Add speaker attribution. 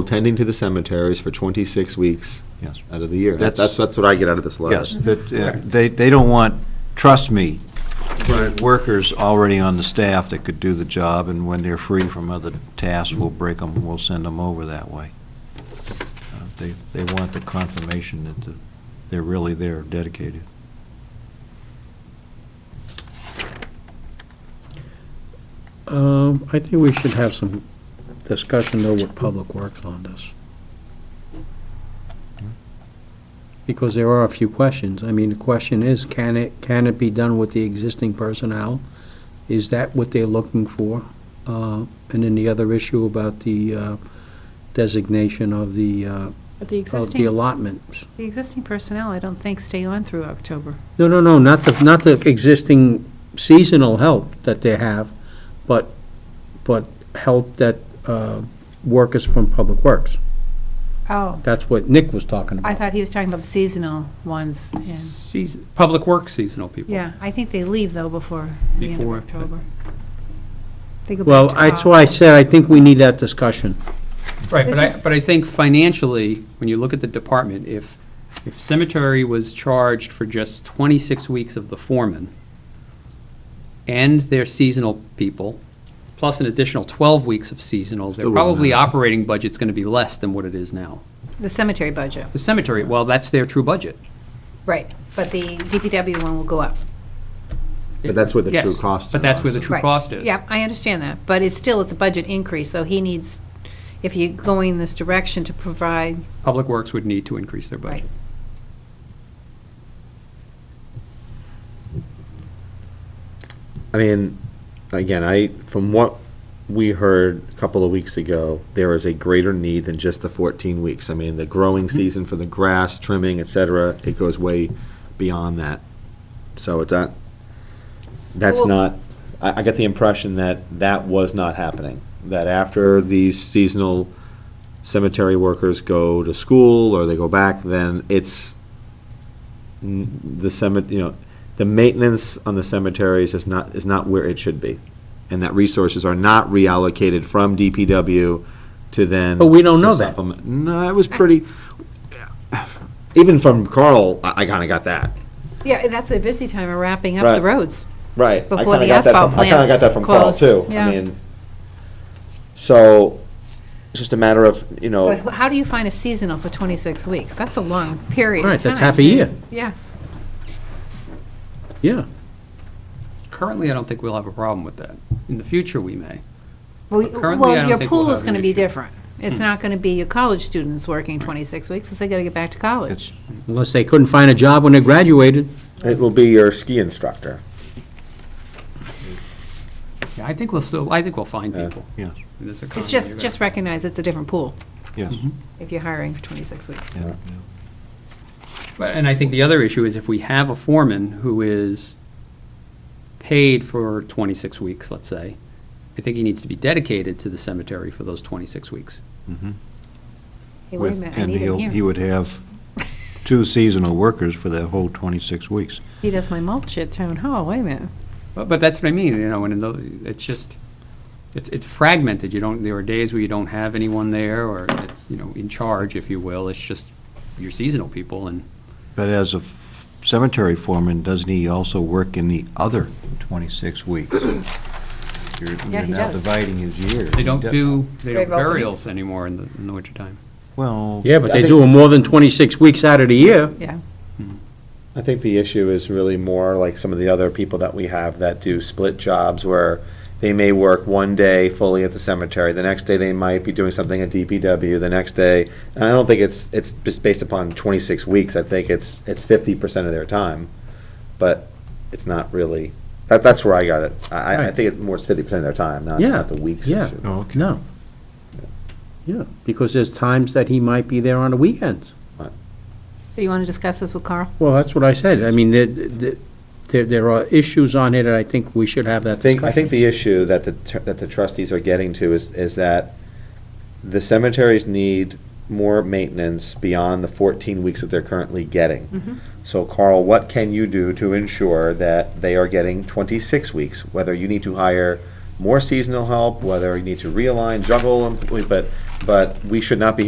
Speaker 1: attending to the cemeteries for 26 weeks
Speaker 2: Yes.
Speaker 1: out of the year.
Speaker 2: That's-
Speaker 1: That's, that's what I get out of this letter.
Speaker 2: Yes, but uh, they, they don't want, trust me, workers already on the staff that could do the job, and when they're free from other tasks, we'll break them, we'll send them over that way. Uh, They, they want the confirmation that the- they're really there, dedicated.
Speaker 3: Um, I think we should have some discussion though with Public Works on this. Because there are a few questions. I mean, the question is, can it, can it be done with the existing personnel? Is that what they're looking for? Uh, and then the other issue about the, uh, designation of the, uh,
Speaker 4: But the
Speaker 3: of the
Speaker 4: existing,
Speaker 3: allotments.
Speaker 4: the existing personnel, I don't think stay on through October.
Speaker 3: No, no, no, not the, not the existing seasonal help that they have, but, but help that, uh, workers from Public Works.
Speaker 4: Oh,
Speaker 3: That's what Nick was talking
Speaker 4: I
Speaker 3: about.
Speaker 4: thought he was talking about the seasonal ones. yeah.
Speaker 5: Seas- Public Works seasonal people.
Speaker 4: Yeah, I think they leave though before the end of
Speaker 5: Before, but-
Speaker 4: October. They go back
Speaker 3: Well,
Speaker 4: to
Speaker 3: that's
Speaker 4: Oc-
Speaker 3: why I said I think we need that discussion.
Speaker 5: Right, but
Speaker 4: This
Speaker 5: I,
Speaker 4: is-
Speaker 5: but I think financially, when you look at the department, if, if cemetery was charged for just 26 weeks of the foreman and their seasonal people, plus an additional 12 weeks of seasonal, their
Speaker 1: Still wouldn't
Speaker 5: probably
Speaker 1: matter.
Speaker 5: operating budget's going to be less than what it is now.
Speaker 4: The cemetery budget,
Speaker 5: The cemetery, well, that's their true budget.
Speaker 4: right, but the DPW one will go up.
Speaker 1: But that's where the
Speaker 5: Yes,
Speaker 1: true cost
Speaker 5: But
Speaker 1: is,
Speaker 5: that's where the
Speaker 1: obviously.
Speaker 5: true
Speaker 4: Right.
Speaker 5: cost is.
Speaker 4: Yeah, I understand that, but it's still, it's a budget increase, so he needs, if you're going this direction to provide,
Speaker 5: Public Works would need to increase their
Speaker 4: right.
Speaker 5: budget.
Speaker 1: I mean, again, I, from what we heard a couple of weeks ago, there is a greater need than just the 14 weeks. I mean, the
Speaker 5: Mm-hmm.
Speaker 1: growing season for the grass, trimming, et cetera, it goes way beyond that. So it's not, that's
Speaker 4: Well-
Speaker 1: not, I, I got the impression that that was not happening. That after these seasonal cemetery workers go to school or they go back, then it's n- the cemetery, you know, the maintenance on the cemeteries is not, is not where it should be. And that resources are not reallocated from DPW to then.
Speaker 3: But we don't
Speaker 1: to
Speaker 3: know that.
Speaker 1: supplement. No, it was pretty, even from Carl, I, I kinda got that.
Speaker 4: Yeah, that's a busy time of wrapping up the
Speaker 1: Right.
Speaker 4: roads.
Speaker 1: Right. I
Speaker 4: Before
Speaker 1: kinda
Speaker 4: the
Speaker 1: got that
Speaker 4: asphalt
Speaker 1: from- I kind of got
Speaker 4: plants
Speaker 1: that from Carl,
Speaker 4: closed.
Speaker 1: too.
Speaker 4: Yeah.
Speaker 1: I mean, so, it's just a matter of, you
Speaker 3: Oh.
Speaker 1: know,
Speaker 4: But how do you find a seasonal for 26 weeks? That's a long period of
Speaker 3: Right, that's
Speaker 4: time.
Speaker 3: half a year,
Speaker 4: Yeah,
Speaker 3: yeah.
Speaker 5: Currently, I don't think we'll have a problem with that. In the future, we may.
Speaker 4: well,
Speaker 5: Currently, I
Speaker 4: well,
Speaker 5: don't
Speaker 4: your
Speaker 5: think we'll
Speaker 4: pool is
Speaker 5: have an
Speaker 4: gonna be
Speaker 5: issue. Hmm.
Speaker 4: different. It's not gonna be your college students working 26 weeks, because they gotta get back to college.
Speaker 2: It's,
Speaker 3: Unless they couldn't find a job when they graduated.
Speaker 1: it will be your ski instructor.
Speaker 5: Yeah, I think we'll still, I think we'll find
Speaker 1: Yeah.
Speaker 5: people.
Speaker 2: yes,
Speaker 5: in this
Speaker 4: It's
Speaker 5: economy.
Speaker 4: just, just recognize it's a different pool
Speaker 2: yes.
Speaker 4: if you're hiring for 26 weeks.
Speaker 2: yeah, yeah.
Speaker 5: But- And I think the other issue is if we have a foreman who is paid for 26 weeks, let's say, I think he needs to be dedicated to the cemetery for those 26 weeks.
Speaker 4: Hey, wait a
Speaker 2: With-
Speaker 4: minute, I
Speaker 2: and
Speaker 4: need
Speaker 2: he'll-
Speaker 4: him
Speaker 2: He
Speaker 4: here.
Speaker 2: would have two seasonal workers for that whole 26 weeks.
Speaker 4: He does my mulch at town hall, wait a minute.
Speaker 5: But, but that's what I mean, you know, and in those, it's just, it's, it's fragmented. You don't, there are days where you don't have anyone there or it's, you know, in charge, if you will. It's just your seasonal people and
Speaker 2: But as a f- cemetery foreman, doesn't he also work in the other 26 weeks? You're
Speaker 4: Yeah,
Speaker 2: you're
Speaker 4: he
Speaker 2: now
Speaker 4: does.
Speaker 2: dividing his year.
Speaker 5: they don't do, they don't
Speaker 4: Grave openings.
Speaker 5: burials anymore in the, in the wintertime.
Speaker 2: Well,
Speaker 3: Yeah, but
Speaker 1: I
Speaker 3: they
Speaker 1: think-
Speaker 3: do them more than 26 weeks out of the year.
Speaker 4: Yeah,
Speaker 1: I think the issue is really more like some of the other people that we have that do split jobs where they may work one day fully at the cemetery, the next day they might be doing something at DPW, the next day. And I don't think it's, it's just based upon twenty-six weeks, I think it's, it's fifty percent of their time. But it's not really, that, that's where I got it. I- I, I
Speaker 3: Right.
Speaker 1: think it's more fifty percent of their time, not,
Speaker 3: Yeah,
Speaker 1: not the weeks
Speaker 3: yeah.
Speaker 1: issue.
Speaker 2: oh, okay.
Speaker 3: No. Yeah, because there's times that he might be there on the weekends.
Speaker 4: so you wanna discuss this with Carl?
Speaker 3: Well, that's what I said. I mean, there- there, there- there are issues on here that I think we should have that
Speaker 1: I think, I think
Speaker 3: discussion.
Speaker 1: the issue that the, tr- that the trustees are getting to is, is that the cemeteries need more maintenance beyond the fourteen weeks that they're currently getting. So Carl, what can you do to ensure that they are getting twenty-six weeks? Whether you need to hire more seasonal help, whether you need to realign, juggle, but, but we should not be here.